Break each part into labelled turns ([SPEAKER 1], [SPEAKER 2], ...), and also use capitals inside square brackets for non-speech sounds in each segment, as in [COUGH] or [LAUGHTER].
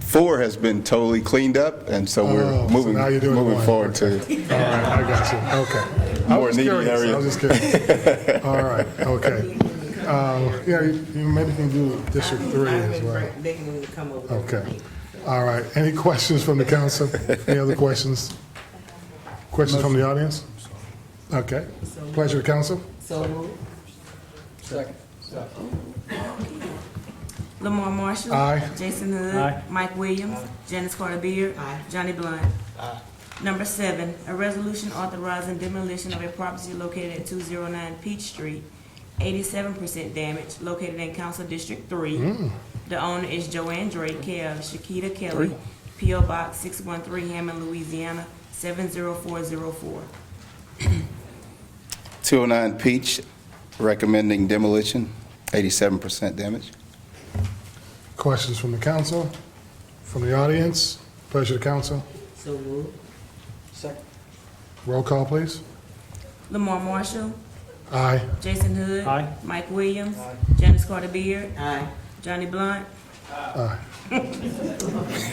[SPEAKER 1] Four has been totally cleaned up, and so
[SPEAKER 2] Oh,
[SPEAKER 1] we're
[SPEAKER 2] so
[SPEAKER 1] moving,
[SPEAKER 2] now you're doing
[SPEAKER 1] moving
[SPEAKER 2] one.
[SPEAKER 1] forward
[SPEAKER 2] All
[SPEAKER 1] to,
[SPEAKER 2] right, I got you, okay. I
[SPEAKER 1] More
[SPEAKER 2] was
[SPEAKER 1] needy
[SPEAKER 2] curious,
[SPEAKER 1] area.
[SPEAKER 2] I was just
[SPEAKER 1] [LAUGHS]
[SPEAKER 2] curious. All right, okay. Uh, Yeah, you you maybe can do District Three as well.
[SPEAKER 3] Begging them to come over.
[SPEAKER 2] Okay, all right. Any questions from the council? Any other questions? Questions from the audience? Okay, pleasure to council.
[SPEAKER 3] So moved. Lamar Marshall.
[SPEAKER 2] Aye.
[SPEAKER 3] Jason Hood.
[SPEAKER 4] Aye.
[SPEAKER 3] Mike Williams. Janice Carter Beard. Johnny Blunt. Number seven, a resolution authorizing demolition of a property located at two zero nine Peach Street, eighty-seven percent damage, located in Council District Three. The owner is Joanne Drake, care of Shakita Kelly, P O Box six one three Hammond, Louisiana, seven zero four zero four.
[SPEAKER 1] 209 Peach, recommending demolition, 87% damage.
[SPEAKER 2] Questions from the council, from the audience? Pleasure to council.
[SPEAKER 3] So moved.
[SPEAKER 2] Roll call, please.
[SPEAKER 3] Lamar Marshall,
[SPEAKER 2] Aye.
[SPEAKER 3] Jason Hood.
[SPEAKER 4] Aye.
[SPEAKER 3] Mike Williams. Janice Carter Beard. Johnny Blunt.
[SPEAKER 2] Aye.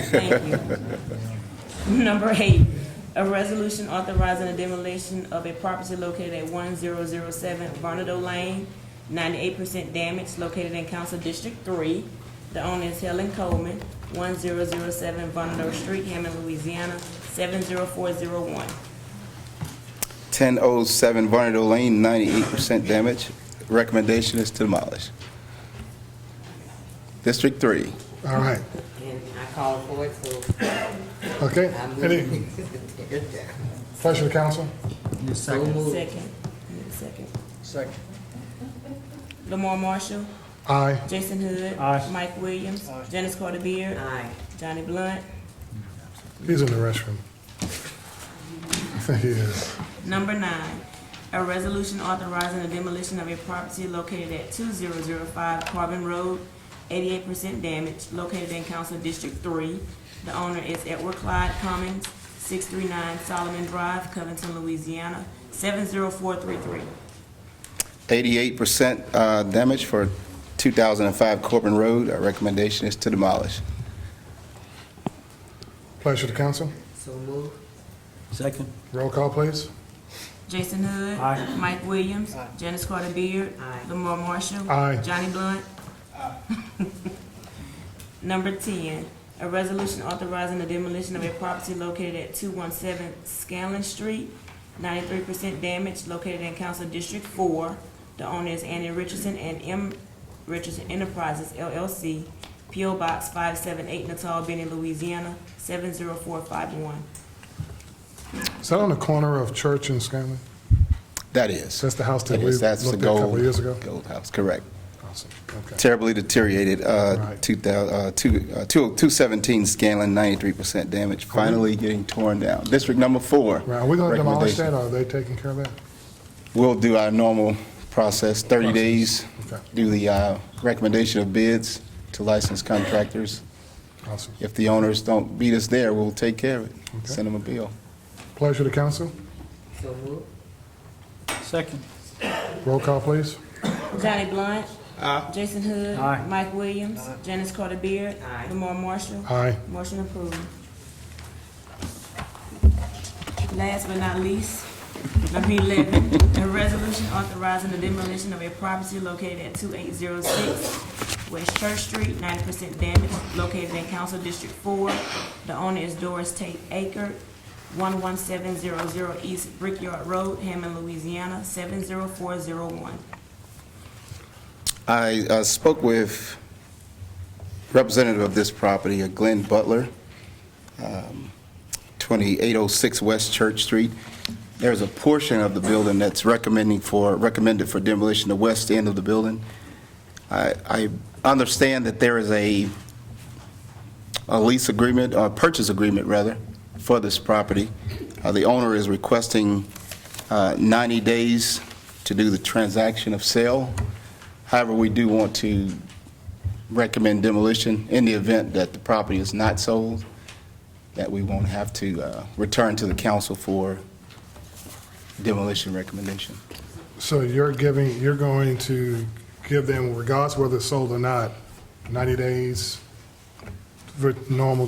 [SPEAKER 3] Thank you. Number eight, a resolution authorizing the demolition of a property located at one zero zero seven Barnado Lane, ninety-eight percent damage, located in Council District Three. The owner is Helen Coleman, one zero zero seven Barnado Street, Hammond, Louisiana, seven zero four zero one.
[SPEAKER 1] 1007 Barnard Lane, 98% damage. Recommendation is to demolish. District 3.
[SPEAKER 2] All right,
[SPEAKER 3] And I called for it, so
[SPEAKER 2] okay. Any,
[SPEAKER 3] [LAUGHS]
[SPEAKER 2] pleasure to council.
[SPEAKER 3] Second. Second.
[SPEAKER 5] Second.
[SPEAKER 3] Lamar Marshall.
[SPEAKER 2] Aye.
[SPEAKER 3] Jason Hood.
[SPEAKER 4] Aye.
[SPEAKER 3] Mike Williams. Janice Carter Beard. Johnny Blunt.
[SPEAKER 2] He's in the restroom. I think he is.
[SPEAKER 3] Number nine, a resolution authorizing the demolition of a property located at two zero zero five Carbon Road, eighty-eight percent damage, located in Council District Three. The owner is Edward Clyde Cummings, six three nine Solomon Drive, Covington, Louisiana, seven zero four three three.
[SPEAKER 1] 88% uh, damage for 2005 Corbin Road. Our recommendation is to demolish.
[SPEAKER 2] Pleasure to council.
[SPEAKER 3] So moved.
[SPEAKER 5] Second.
[SPEAKER 2] Roll call, please.
[SPEAKER 3] Jason Hood.
[SPEAKER 4] Aye.
[SPEAKER 3] Mike Williams. Janice Carter Beard. Lamar Marshall.
[SPEAKER 2] Aye.
[SPEAKER 3] Johnny Blunt. [LAUGHS] Number ten, a resolution authorizing the demolition of a property located at two one seven Scanlon Street, ninety-three percent damage, located in Council District Four. The owner is Annie Richardson and M. Richardson Enterprises LLC, PO Box five seven eight Natal, Benny, Louisiana, seven zero four five one.
[SPEAKER 2] Is that on the corner of Church and Scanlon?
[SPEAKER 1] That is.
[SPEAKER 2] That's the house that
[SPEAKER 1] That
[SPEAKER 2] we
[SPEAKER 1] is,
[SPEAKER 2] looked at
[SPEAKER 1] that's
[SPEAKER 2] a
[SPEAKER 1] the
[SPEAKER 2] couple
[SPEAKER 1] gold,
[SPEAKER 2] of years ago?
[SPEAKER 1] gold house, correct.
[SPEAKER 2] Awesome. Okay.
[SPEAKER 1] Terribly deteriorated, uh,
[SPEAKER 2] Right.
[SPEAKER 1] 2000 uh, two- uh, 217 Scanlon, 93% damage, finally getting torn down. District number four.
[SPEAKER 2] Right, are we going to demolish
[SPEAKER 1] recommendation.
[SPEAKER 2] that, or are they taking care of that?
[SPEAKER 1] We'll do our normal process, 30 days,
[SPEAKER 2] Okay.
[SPEAKER 1] do the uh, recommendation of bids to licensed contractors.
[SPEAKER 2] Awesome.
[SPEAKER 1] If the owners don't beat us there, we'll take care of
[SPEAKER 2] Okay.
[SPEAKER 1] it, send them a bill.
[SPEAKER 2] Pleasure to council.
[SPEAKER 3] So moved.
[SPEAKER 4] Second.
[SPEAKER 2] Roll call, please.
[SPEAKER 3] Johnny Blunt. Jason Hood.
[SPEAKER 4] Aye.
[SPEAKER 3] Mike Williams. Janice Carter Beard. Lamar Marshall.
[SPEAKER 2] Aye.
[SPEAKER 3] Motion approved. Last but not least, number eleven, a resolution authorizing the demolition of a property located at two eight zero six West Church Street, ninety percent damage, located in Council District Four. The owner is Doris Tate Aker, one one seven zero zero East Brickyard Road, Hammond, Louisiana, seven zero four zero one.
[SPEAKER 1] I uh, spoke with representative of this property, uh, Glenn Butler, um, 2806 West Church Street. There's a portion of the building that's recommending for, recommended for demolition, the west end of the building. I I understand that there is a a lease agreement, or purchase agreement, rather, for this property. Uh, The owner is requesting uh, 90 days to do the transaction of sale. However, we do want to recommend demolition in the event that the property is not sold, that we won't have to uh, return to the council for demolition recommendation.
[SPEAKER 2] So you're giving, you're going to give them, regardless whether it's sold or not, 90 days for normal